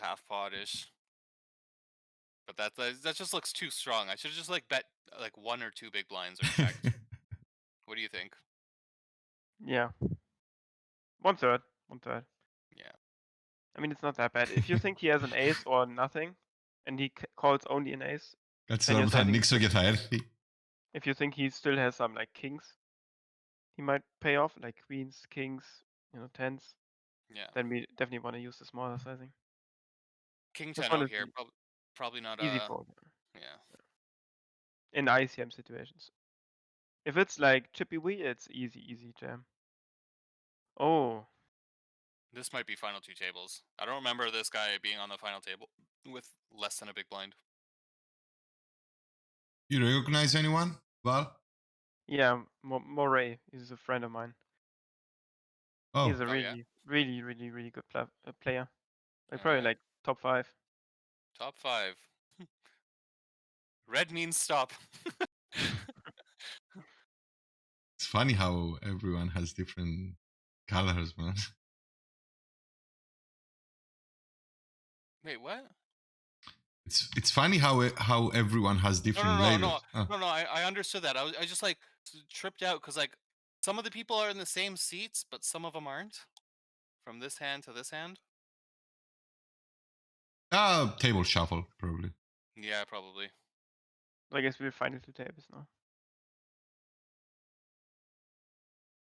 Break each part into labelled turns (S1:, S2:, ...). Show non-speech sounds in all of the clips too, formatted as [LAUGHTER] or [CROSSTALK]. S1: half pot-ish. But that, that that just looks too strong. I should just like bet uh, like one or two big blinds or
S2: [LAUGHS]
S1: checked.
S3: [LAUGHS]
S1: what do you think?
S2: Yeah. One third. One third.
S1: Yeah.
S2: I mean, it's not that bad. If you think he has an
S1: [LAUGHS]
S2: ace or nothing, and he c- calls only an ace,
S3: Alltså
S2: Men jag
S3: de
S2: tror
S3: har
S2: att-
S3: niks att geteilt.
S2: if you think he still has some like kings, he might pay off like queens, kings, you know, tens.
S1: Yeah.
S2: Then we definitely want to use the smaller sizing.
S1: King
S2: This
S1: ten
S2: one
S1: out
S2: is
S1: here.
S2: e-
S1: Prob- probably not.
S2: Easy
S1: Uh,
S2: fold
S1: yeah.
S2: in ICM situations. If it's like chippy wee, it's easy, easy jam. Oh,
S1: This might be final two tables. I don't remember this guy being on the final table with less than a big blind.
S3: You recognize anyone? Val?
S2: yeah, Mo- Moray is a friend of mine.
S3: Oh,
S2: He's a
S1: Oh,
S2: really,
S1: yeah.
S2: really, really, really good pla- uh, player. Like
S1: Yeah,
S2: probably
S1: yeah.
S2: like top five.
S1: Top five. [LAUGHS] Red means stop. [LAUGHS]
S3: it's funny how everyone has different colors, man. [LAUGHS]
S1: Wait, what?
S3: It's it's funny how e- how everyone has
S1: no,
S3: different
S1: no,
S3: labels. Ah,
S1: No, no, I, I understood that. I was I just like s- tripped out because like some of the people are in the same seats, but some of them aren't. From this hand to this hand.
S3: Ah, table shuffle probably.
S1: Yeah, probably.
S2: I guess we'll find it two tables now.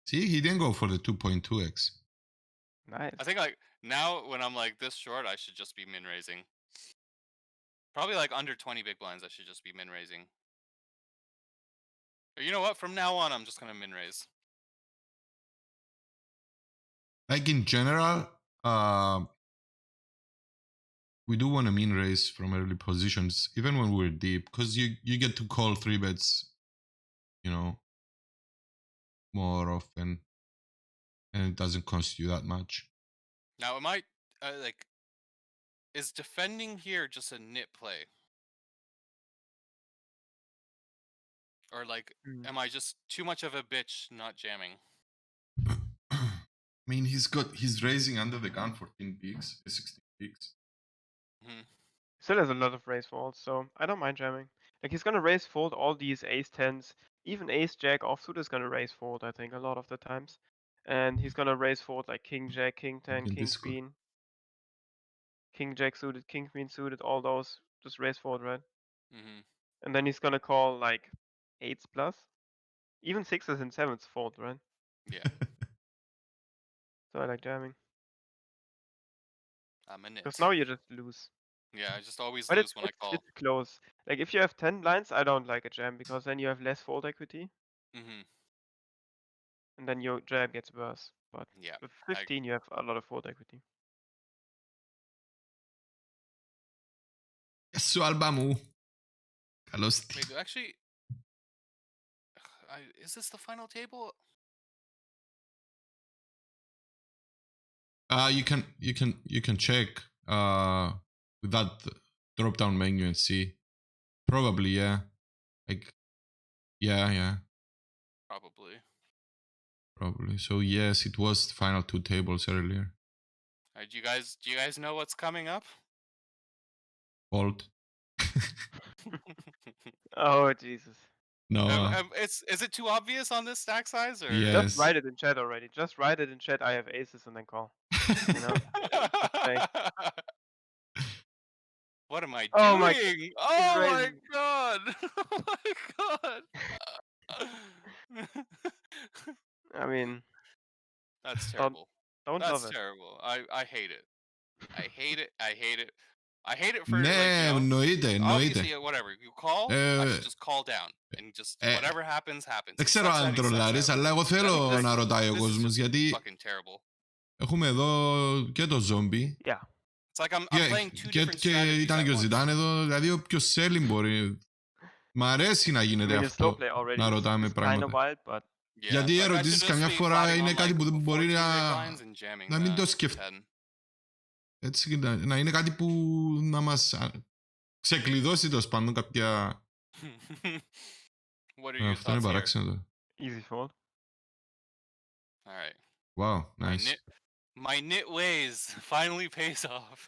S3: See, he didn't go for the 2.2x.
S2: Nice.
S1: I think like now when I'm like this short, I should just be min raising. Probably like under 20 big blinds, I should just be min raising. Or You know what? From now on, I'm just gonna min raise.
S3: Like in general, um, we do want to mean raise from early positions, even when we're deep, because you you get to call three bets, you know, more often, and it doesn't cost you that much.
S1: Now, am I uh, like, is defending here just a nit play? Or like,
S2: Mm.
S1: am I just too much of a bitch not jamming?
S3: [CLEARS THROAT] I mean, he's got he's raising under the gun eh, 14 bigs, 16 bigs.
S2: Still has a lot of raise folds, so I don't mind jamming. Like he's gonna raise fold all these ace tens, even ace jack offsuit is gonna raise fold. I think a lot of the times, and he's gonna raise fold like king jack, king
S3: Like
S2: ten,
S3: in
S2: king
S3: this one.
S2: queen, king jack suited, king queen suited, all those just raise fold, right?
S1: Mm-hmm.
S2: And then he's gonna call like eights plus, even sixes and sevens fold, right?
S1: Yeah,
S2: [LAUGHS] So I like jamming
S1: I'm a nit.
S2: because now you just lose.
S1: Yeah, I just always
S2: But
S1: lose
S2: it's,
S1: when I
S2: it's,
S1: call.
S2: it's close. Like if you have ten blinds, I don't like a jam because then you have less fold equity,
S1: Mm-hmm.
S2: and then your jam gets worse. But
S1: Yeah.
S2: With
S1: I-
S2: 15, you have a lot of fold equity.
S3: Σου άλμπα μου. Καλώς τι.
S1: Wait, actually, I, is this the final table?
S3: Uh, you can you can you can check uh with that drop down menu and see. Probably yeah. Like yeah yeah
S1: Probably.
S3: probably. So yes, it was the final two tables earlier.
S1: Uh, do you guys do you guys know what's coming up? [LAUGHS]
S3: Fault.
S2: Oh, Jesus.
S3: No.
S1: Um,
S3: uh,
S1: um, it's is it too obvious on this stack size or?
S3: Yeah.
S2: Just
S3: Yes.
S2: write it in chat already. Just write it in chat. I have aces and then call. You
S1: [LAUGHS]
S3: [LAUGHS]
S2: know?
S1: what am I
S2: Oh my-
S1: doing? oh my
S2: raising.
S1: god! [LAUGHS] Oh my god! [LAUGHS]
S2: I mean,
S1: That's
S2: Don't
S1: terrible.
S2: don't
S1: That's
S2: love it.
S1: terrible. I I hate it. I hate it. I hate it. I hate it for like,
S3: ναι,
S1: you know,
S3: εννοείται,
S1: obviously
S3: εννοείται.
S1: uh, whatever you call. I
S3: Ε,
S1: should just call down and just
S3: ε,
S1: whatever happens happens.
S3: Δεν
S1: It
S3: ξέρω
S1: sucks that
S3: αν
S1: he sucks
S3: τρολάρεις,
S1: that.
S3: αλλά εγώ
S1: This-
S3: θέλω να ρωτάει ο
S1: this is
S3: κόσμος,
S1: just
S3: γιατί
S1: Fucking terrible.
S3: έχουμε εδώ και το zombie
S2: Yeah.
S1: It's like I'm, I'm
S3: Και,
S1: playing two
S3: και,
S1: different
S3: και
S1: strategies
S3: ήταν
S1: at
S3: και ο
S1: once.
S3: Ζητάν εδώ, δηλαδή όποιο selling μπορεί. Μ' αρέσει να
S2: I
S3: γίνεται
S2: mean, it's slow
S3: αυτό.
S2: play already.
S3: να
S2: is-
S3: ρωτάμε
S2: is kinda
S3: πράγματα.
S2: wild, but
S1: Yeah.
S3: Γιατί οι
S1: Like, I should
S3: ερωτήσεις
S1: just
S3: καμιά
S1: be
S3: φορά
S1: plotting
S3: είναι
S1: on,
S3: κάτι
S1: like,
S3: που δεν μπορεί
S1: 14 big
S3: να-
S1: blinds and jamming
S3: να μην
S1: the
S3: το σκεφ-
S1: 10.
S3: Έτσι, και να, να είναι κάτι που να μας α, ξεκλειδώσει τέλο πάντων κάποια...
S1: [LAUGHS] What are
S3: Ε,
S1: your
S3: αυτό είναι
S1: thoughts here?
S3: παράξενο τώρα.
S2: easy fold.
S1: All right.
S3: Wow,
S1: My
S3: nice.
S1: [LAUGHS] knit, my knit ways finally pays off.